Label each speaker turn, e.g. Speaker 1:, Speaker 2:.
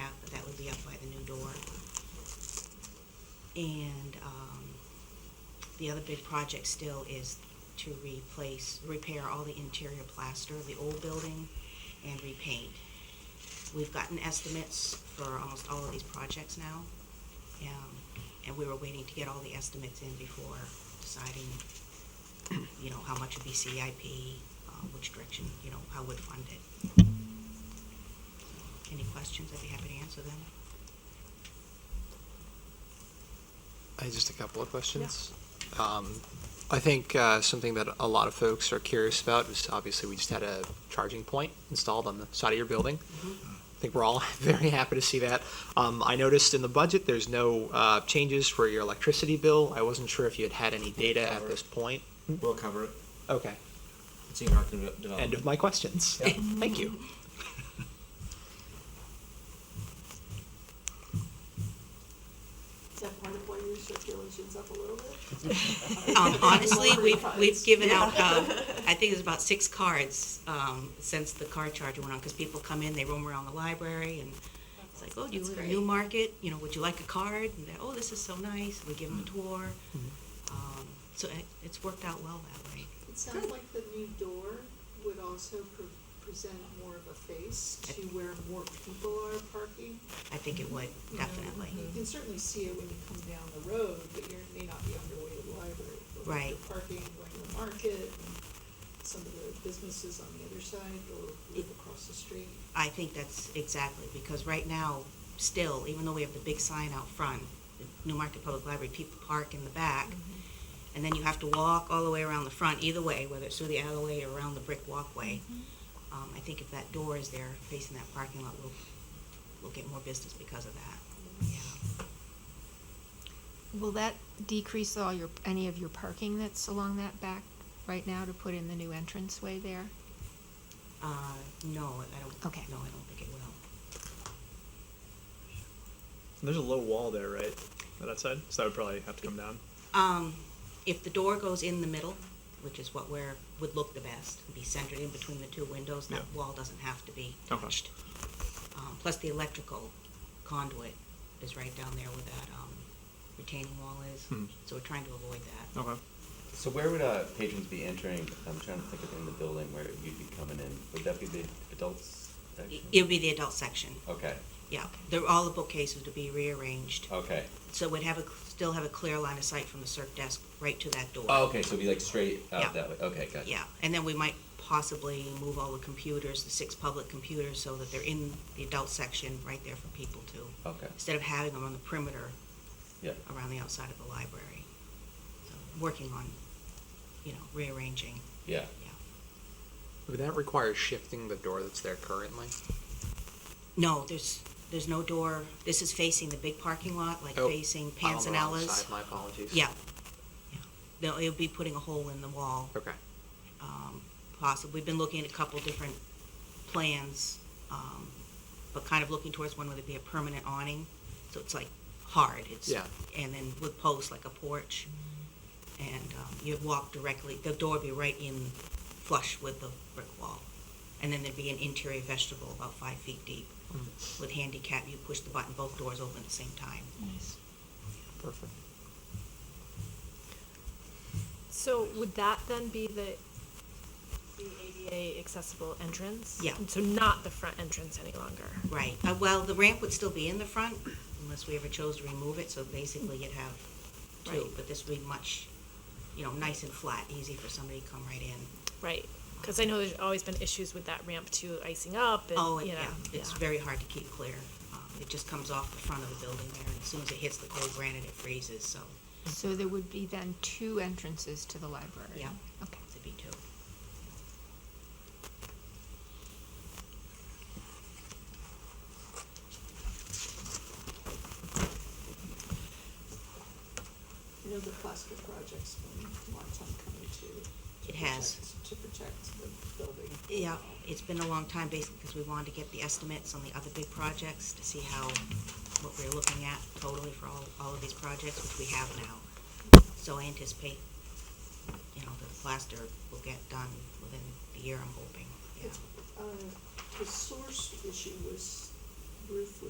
Speaker 1: out, but that would be up by the new door. And, um, the other big project still is to replace, repair all the interior plaster of the old building and repaint. We've gotten estimates for almost all of these projects now. Um, and we were waiting to get all the estimates in before deciding, you know, how much would be CIP, uh, which direction, you know, how would fund it. Any questions? I'd be happy to answer them.
Speaker 2: I just a couple of questions. Um, I think uh, something that a lot of folks are curious about is obviously we just had a charging point installed on the side of your building.
Speaker 1: Mm-hmm.
Speaker 2: I think we're all very happy to see that. Um, I noticed in the budget there's no uh, changes for your electricity bill. I wasn't sure if you had had any data at this point.
Speaker 3: We'll cover it.
Speaker 2: Okay,
Speaker 3: It's in our development.
Speaker 2: end of my questions.
Speaker 3: Yeah.
Speaker 2: Thank you.
Speaker 4: Is that part of why your circulation's up a little bit?
Speaker 1: Um, honestly, we've, we've
Speaker 4: Cards.
Speaker 1: given out, um, I think it's about six cards, um, since the car charger went on, because people come in, they roam around the library, and it's like, oh, do you
Speaker 5: That's
Speaker 1: live in
Speaker 5: great.
Speaker 1: Newmarket? You know, would you like a card? And they're, oh, this is so nice, we give them a tour. Um, so it, it's worked out well that way.
Speaker 4: It sounds like the new door would also pre- present more of a face to where more people are parking.
Speaker 1: I think it would,
Speaker 4: you know.
Speaker 1: definitely.
Speaker 4: You can certainly see it when you come down the road, but you may not be on your way to the library. but when
Speaker 1: Right.
Speaker 4: you're Parking, going to the market, and some of the businesses on the other side or live across the street.
Speaker 1: I think that's exactly, because right now, still, even though we have the big sign out front, the Newmarket Public Library, people park in the back,
Speaker 4: Mm-hmm.
Speaker 1: and then you have to walk all the way around the front, either way, whether it's through the alleyway or around the brick walkway.
Speaker 4: Mm-hmm.
Speaker 1: Um, I think if that door is there facing that parking lot, we'll, we'll get more business because of that, yeah.
Speaker 5: Will that decrease all your, any of your parking that's along that back right now to put in the new entranceway there?
Speaker 1: Uh, no, I don't,
Speaker 5: Okay.
Speaker 1: no, I don't think it will.
Speaker 6: There's a low wall there, right? On that side? So that would probably have to come down.
Speaker 1: Um, if the door goes in the middle, which is what we're, would look the best, be centered in between the two windows, that
Speaker 6: Yeah.
Speaker 1: wall doesn't have to be
Speaker 6: Okay.
Speaker 1: touched. Um, plus the electrical conduit is right down there where that, um, retaining wall is,
Speaker 6: Hmm.
Speaker 1: so we're trying to avoid that.
Speaker 6: Okay.
Speaker 7: So where would uh, patrons be entering? I'm trying to think of in the building where you'd be coming in. Would that be the adults section?
Speaker 1: It- It would be the adult section,
Speaker 7: Okay,
Speaker 1: yeah, there, all the bookcases would be rearranged,
Speaker 7: okay.
Speaker 1: so we'd have a, still have a clear line of sight from the circ desk right to that door.
Speaker 7: Oh, okay, so it'd be like straight
Speaker 1: Yeah.
Speaker 7: out that way. Okay, gotcha.
Speaker 1: Yeah, and then we might possibly move all the computers, the six public computers, so that they're in the adult section right there for people to,
Speaker 7: Okay,
Speaker 1: instead of having them on the perimeter
Speaker 7: yeah.
Speaker 1: around the outside of the library. So, Working on, you know, rearranging,
Speaker 7: Yeah.
Speaker 1: yeah.
Speaker 2: Would that require shifting the door that's there currently?
Speaker 1: No, there's, there's no door, this is facing the big parking lot, like
Speaker 2: Oh,
Speaker 1: facing
Speaker 2: I'm on the wrong
Speaker 1: Panzanella's.
Speaker 2: side, My apologies.
Speaker 1: Yeah, yeah. No, it'll be putting a hole in the wall.
Speaker 2: Okay.
Speaker 1: um, possible. We've been looking at a couple different plans, um, but kind of looking towards one where there'd be a permanent awning, so it's like hard. It's
Speaker 2: Yeah.
Speaker 1: and then with posts like a porch, and um, you'd walk directly. The door would be right in flush with the brick wall, and then there'd be an interior vegetable about five feet deep. With handicap, you push the button, both doors open at the same time.
Speaker 2: Perfect.
Speaker 8: So would that then be the, the ADA accessible entrance?
Speaker 1: Yeah.
Speaker 8: So not the front entrance any longer?
Speaker 1: Right, uh, well, the ramp would still be in the front unless we ever chose to remove it, so basically you'd have two,
Speaker 8: Right.
Speaker 1: but this would be much, you know, nice and flat, easy for somebody to come right in.
Speaker 8: Right, because I know there's always been issues with that ramp too, icing up and,
Speaker 1: Oh, and
Speaker 8: you know.
Speaker 1: yeah, it's
Speaker 8: yeah.
Speaker 1: very hard to keep clear. Um, It just comes off the front of the building there, and as soon as it hits the cold granite, it freezes, so
Speaker 5: So there would be then two entrances to the library?
Speaker 1: Yeah.
Speaker 5: Okay.
Speaker 1: it'd be two.
Speaker 4: You know, the plaster project's been a long time coming to. to
Speaker 1: It has.
Speaker 4: protect- To protect the building.
Speaker 1: Yeah, it's been a long time basically because we wanted to get the estimates on the other big projects to see how, what we're looking at totally for all, all of these projects, which we have now. So I anticipate, you know, the plaster will get done within the year, I'm hoping, yeah.
Speaker 4: Uh, The source issue was roof was